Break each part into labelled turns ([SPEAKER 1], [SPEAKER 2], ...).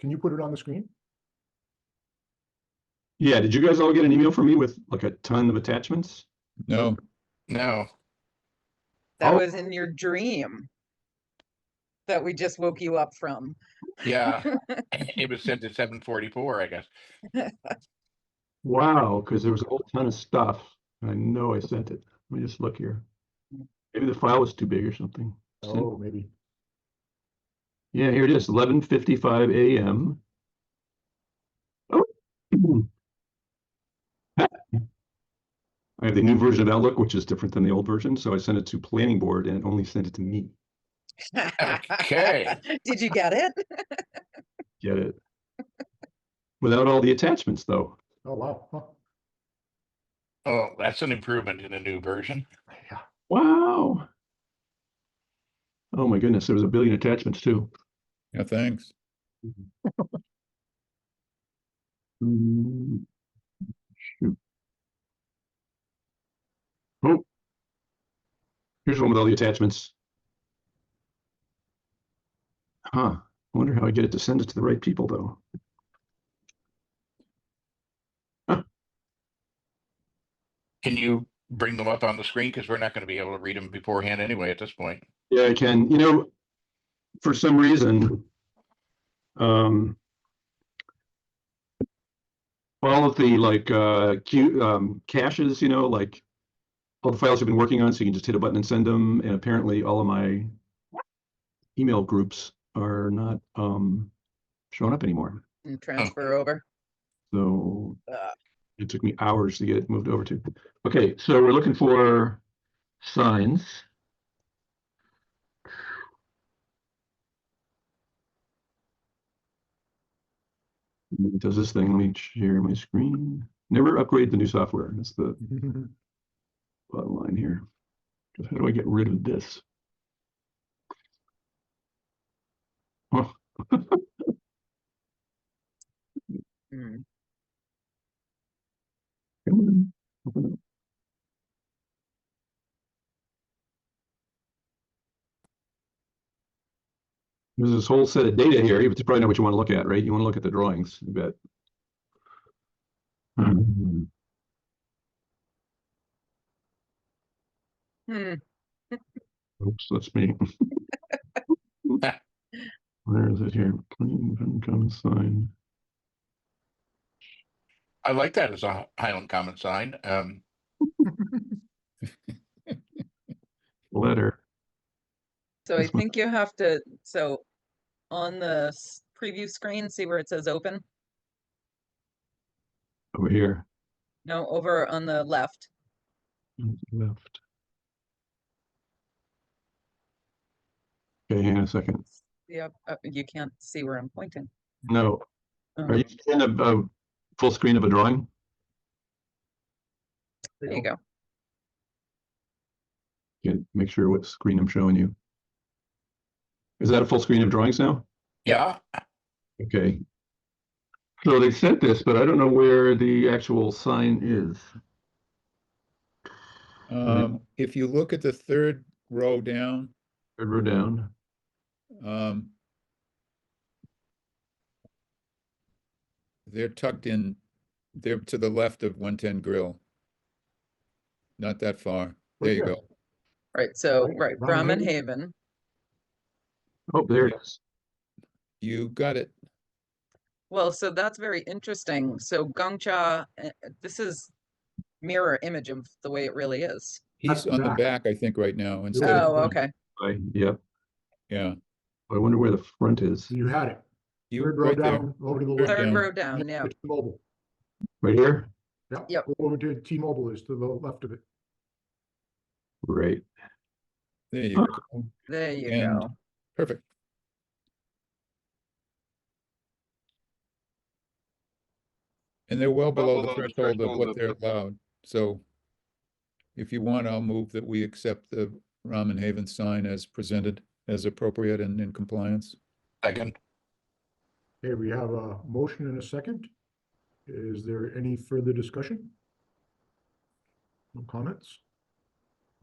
[SPEAKER 1] Can you put it on the screen?
[SPEAKER 2] Yeah, did you guys all get an email from me with like a ton of attachments?
[SPEAKER 3] No,
[SPEAKER 4] No.
[SPEAKER 5] That
[SPEAKER 2] Oh.
[SPEAKER 5] was in your dream that we just woke you up from.
[SPEAKER 4] Yeah. it was sent at 744, I guess.
[SPEAKER 2] Wow, because there was a whole ton of stuff. and I know I sent it. Let me just look here. Maybe the file was too big or something. Sent-
[SPEAKER 1] Oh, maybe.
[SPEAKER 2] Yeah, here it is, eleven fifty-five AM. Oh. I have the new version of Outlook, which is different than the old version, so I sent it to planning board and it only sent it to me.
[SPEAKER 4] Okay.
[SPEAKER 5] Did you get it?
[SPEAKER 2] Get it? Without all the attachments, though.
[SPEAKER 1] Oh, wow. Huh.
[SPEAKER 4] Oh, that's an improvement in the new version.
[SPEAKER 1] Yeah.
[SPEAKER 2] Wow. Oh my goodness, there was a billion attachments too. Mm-hmm.
[SPEAKER 3] yeah, thanks.
[SPEAKER 2] Mm, shoot. Oh. Here's one with all the attachments. Huh, I wonder how I get it to send it to the right people though.
[SPEAKER 4] Can you bring them up on the screen? Because we're not going to be able to read them beforehand anyway at this point.
[SPEAKER 2] Yeah, I can. You know, for some reason, um, all of the like uh, queue um, caches, you know, like all the files you've been working on, so you can just hit a button and send them. And apparently, all of my email groups are not um, showing up anymore.
[SPEAKER 5] And Hmm, transfer over.
[SPEAKER 2] So
[SPEAKER 5] Ugh.
[SPEAKER 2] it took me hours to get it moved over to. Okay, so we're looking for signs. It Does this thing, let me share my screen. Never upgrade the new software. That's the bottom line here. 'Cause How do I get rid of this? Huh.
[SPEAKER 5] Mm.
[SPEAKER 2] Come on, open up. There's this whole set of data here. You probably know what you want to look at, right? You want to look at the drawings, I bet. Mhm.
[SPEAKER 5] Hmm.
[SPEAKER 2] Oops, that's me. Where is it here? Plain income sign.
[SPEAKER 4] I like that as a Highland Common sign. Um,
[SPEAKER 2] Letter.
[SPEAKER 5] So I
[SPEAKER 2] That's what-
[SPEAKER 5] think you have to, so on the s- preview screen, see where it says open?
[SPEAKER 2] Over here.
[SPEAKER 5] No, over on the left.
[SPEAKER 2] on the Left. Okay, hang on a second.
[SPEAKER 5] Yep, uh, you can't see where I'm pointing.
[SPEAKER 2] No, are
[SPEAKER 5] Um,
[SPEAKER 2] you in a, a full screen of a drawing?
[SPEAKER 5] There you go.
[SPEAKER 2] Yeah, make sure what screen I'm showing you. Is that a full screen of drawings now?
[SPEAKER 4] yeah.
[SPEAKER 2] Okay. So they sent this, but I don't know where the actual sign is.
[SPEAKER 3] Um, if you look at the third row down,
[SPEAKER 2] Third row down.
[SPEAKER 3] um, they're tucked in, they're to the left of one ten grill. Not that far. There you
[SPEAKER 1] here.
[SPEAKER 3] go.
[SPEAKER 5] Right, so,
[SPEAKER 1] Right,
[SPEAKER 5] right,
[SPEAKER 1] Brahmin
[SPEAKER 5] Brahmin Haven.
[SPEAKER 2] Oh, there it is.
[SPEAKER 3] You got it.
[SPEAKER 5] Well, so that's very interesting. So Gongcha, uh, this is mirror image of the way it really is.
[SPEAKER 3] He's on the
[SPEAKER 1] back.
[SPEAKER 3] back, I think, right now instead of,
[SPEAKER 5] Oh,
[SPEAKER 3] front.
[SPEAKER 5] okay.
[SPEAKER 2] I- Yep.
[SPEAKER 3] yeah.
[SPEAKER 2] I wonder where the front is.
[SPEAKER 1] You had it.
[SPEAKER 3] You
[SPEAKER 1] Third
[SPEAKER 3] were
[SPEAKER 1] row
[SPEAKER 3] right there.
[SPEAKER 1] down, over to the
[SPEAKER 3] Third
[SPEAKER 1] left.
[SPEAKER 5] Third
[SPEAKER 3] down.
[SPEAKER 5] row down, yeah.
[SPEAKER 1] It's T-Mobile.
[SPEAKER 2] Right here?
[SPEAKER 1] Yeah.
[SPEAKER 5] Yep.
[SPEAKER 1] Over to T-Mobile is to the left of it.
[SPEAKER 2] Right.
[SPEAKER 3] There you go.
[SPEAKER 5] There you
[SPEAKER 3] And-
[SPEAKER 5] go.
[SPEAKER 3] Perfect. And they're well below the threshold of what they're allowed, so if you want, I'll move that we accept the Ramen Haven sign as presented as appropriate and in compliance.
[SPEAKER 4] Second.
[SPEAKER 1] Okay, we have a motion and a second. Is there any further discussion? No comments?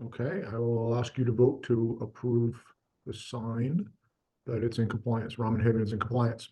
[SPEAKER 1] Okay, I will ask you to vote to approve the sign that it's in compliance, Ramen Haven is in compliance.